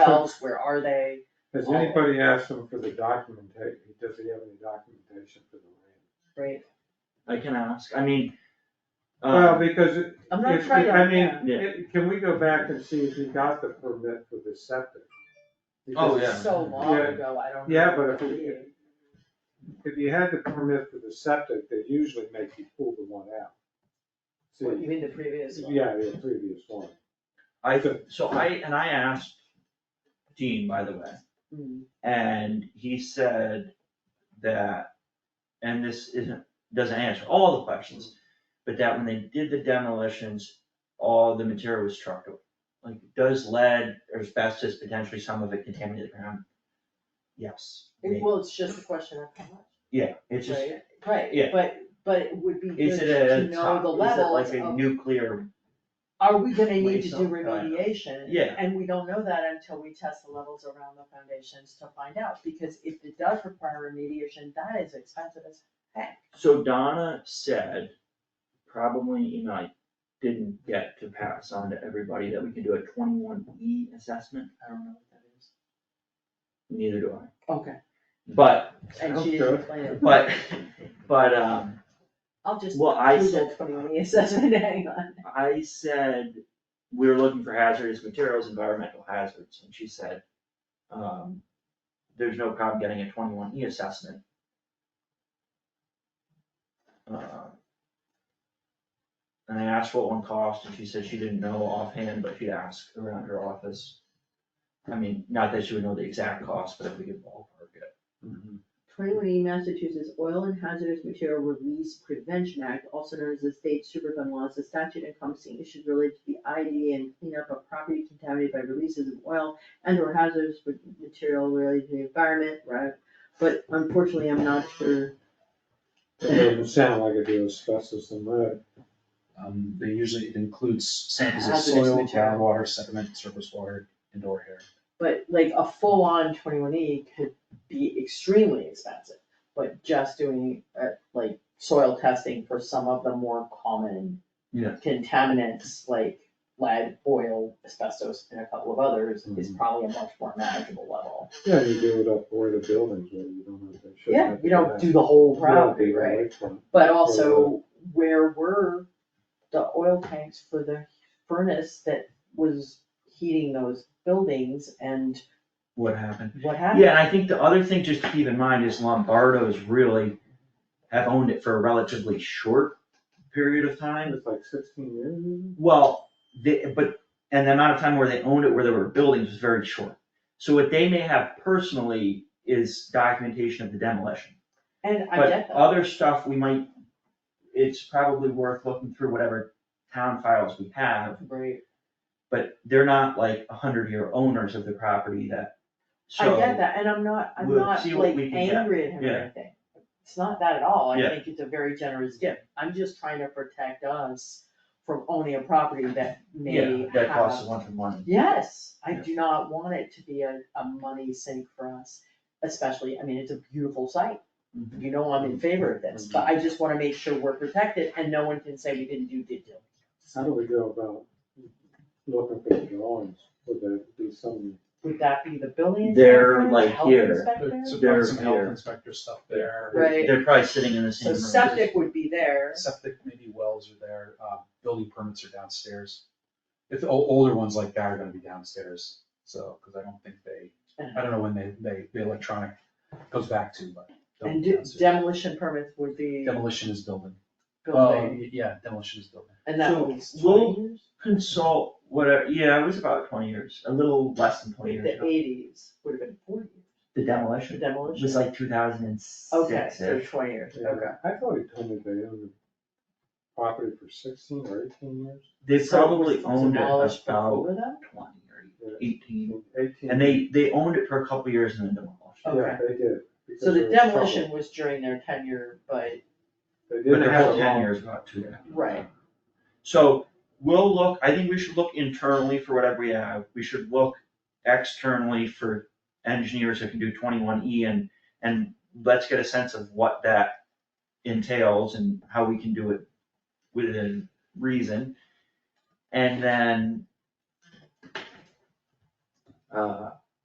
themselves, where are they? Has Oh. anybody asked him for the documentation, does he have any documentation for the Great, I can ask, I mean. land? Well, um, because it- I'm not if- trying to. I mean, Yeah. it- can we go back and see if he got the permit for the septic? Oh, Because yeah. So long Yeah. ago, I don't. Yeah, remember but if we- it being. If you had the permit for the septic, they usually make you pull the one out. What, you See, mean the previous one? yeah, the previous one. I, so I, and I asked Dean, by the way, Mm. and he said that, and this isn't, doesn't answer all the questions, but that when they did the demolitions, all the material was trucked away. Like, does lead or asbestos, potentially some of it contaminate the ground? Yes, It- maybe, Well, it's just a question of how much, yeah, it's just, right? Right, yeah. but, but it would be good is it to a know top, the is it level like a of, nuclear, are we gonna need to Waste do of time. remediation? Yeah. And we don't know that until we test the levels around the foundations to find out, because if it does require remediation, that is expensive as heck. so Donna said, probably, you know, I didn't get to pass on to everybody that we can do a twenty-one E assessment, I don't know what that is. Neither do I, Okay. but, And she Sounds didn't good. explain it. but, but, um, I'll just well, I Google said, twenty-one E assessment, hang on. I said, we were looking for hazardous materials, environmental hazards, and she said, um, there's no problem getting a twenty-one E assessment. Uh, And I asked what one cost, and she said she didn't know offhand, but she'd ask around her office. I mean, not that she would know the exact cost, but if we could ballpark it. Mm-hmm. Twenty-one E Massachusetts Oil and Hazardous Material Release Prevention Act, also known as the state superfund law, is a statute encompassing issues related to the ID and cleanup of property contaminated by releases of oil and or hazardous ma- material related to the environment, right? But unfortunately, I'm not sure. It doesn't sound like it is asbestos and lead. Um, they usually includes samples of Hazardous soil, material. groundwater, sediment, surface water, indoor air. But like a full-on twenty-one E could be extremely expensive, but just doing uh like soil testing for some of the more common Yeah. contaminants like lead, oil, asbestos, and a couple of others Mm-hmm. is probably a much more manageable level. Yeah, you do it up where the buildings where you don't know if they should. Yeah, you don't do the whole property, right? But also where were the oil tanks for the furnace that was heating those buildings and What happened? what happened? Yeah, and I think the other thing just to keep in mind is Lombardo's really have owned it for a relatively short period of time. It's like sixteen years. Well, they, but, and the amount of time where they owned it, where there were buildings was very short. So what they may have personally is documentation of the demolition. And I But get that. other stuff we might, it's probably worth looking through whatever town files we have, Right. but they're not like a hundred year owners of the property that, so. I get that, and I'm not, I'm we'll not see what like we can get. angry at him or Yeah. anything. It's not that at all, I Yeah. think it's a very generous gift, I'm just trying to protect us from owning a property that may Yeah, have. that costs a bunch of money. Yes, I Yeah. do not want it to be a, a money sink for us, especially, I mean, it's a beautiful site. Mhm. You know I'm in favor of this, but I just wanna make sure we're protected and no one can say we didn't do due diligence. How do we go about looking for the drawings? Would there be some? Would that be the building They're inspector, the like health here. inspector? So There, probably some health there. inspector stuff there. Right. They're probably sitting in the same So room. septic would be there. Septic, maybe wells are there, uh, building permits are downstairs. If, the o- older ones like that are gonna be downstairs, so, cause I don't think they, I don't know when they, they, the electronic goes back to, but. they'll And be de- downstairs. demolition permits would be Demolition is building. building, Oh, Yeah, demolition is building. and that So was we'll- twenty years? Consult whatever, yeah, it was about twenty years, a little less than twenty years The ago. eighties would have been forty years, The the demolition demolition. was like two thousand and Okay, six so twenty years, okay. I thought he told me they owned the property for sixteen or eighteen years. They So it probably was owned it demolished about Before that? twenty or Yeah. eighteen, Eighteen. Mm-hmm. and they, they owned it for a couple years and then demolished it. Yeah, they did. because So the there was trouble. demolition was during their tenure, but, They But didn't their have a whole long. tenure is about two. right, So we'll look, I think we should look internally for whatever we have, we should look externally for engineers who can do twenty-one E and, and let's get a sense of what that entails and how we can do it within reason. And then uh,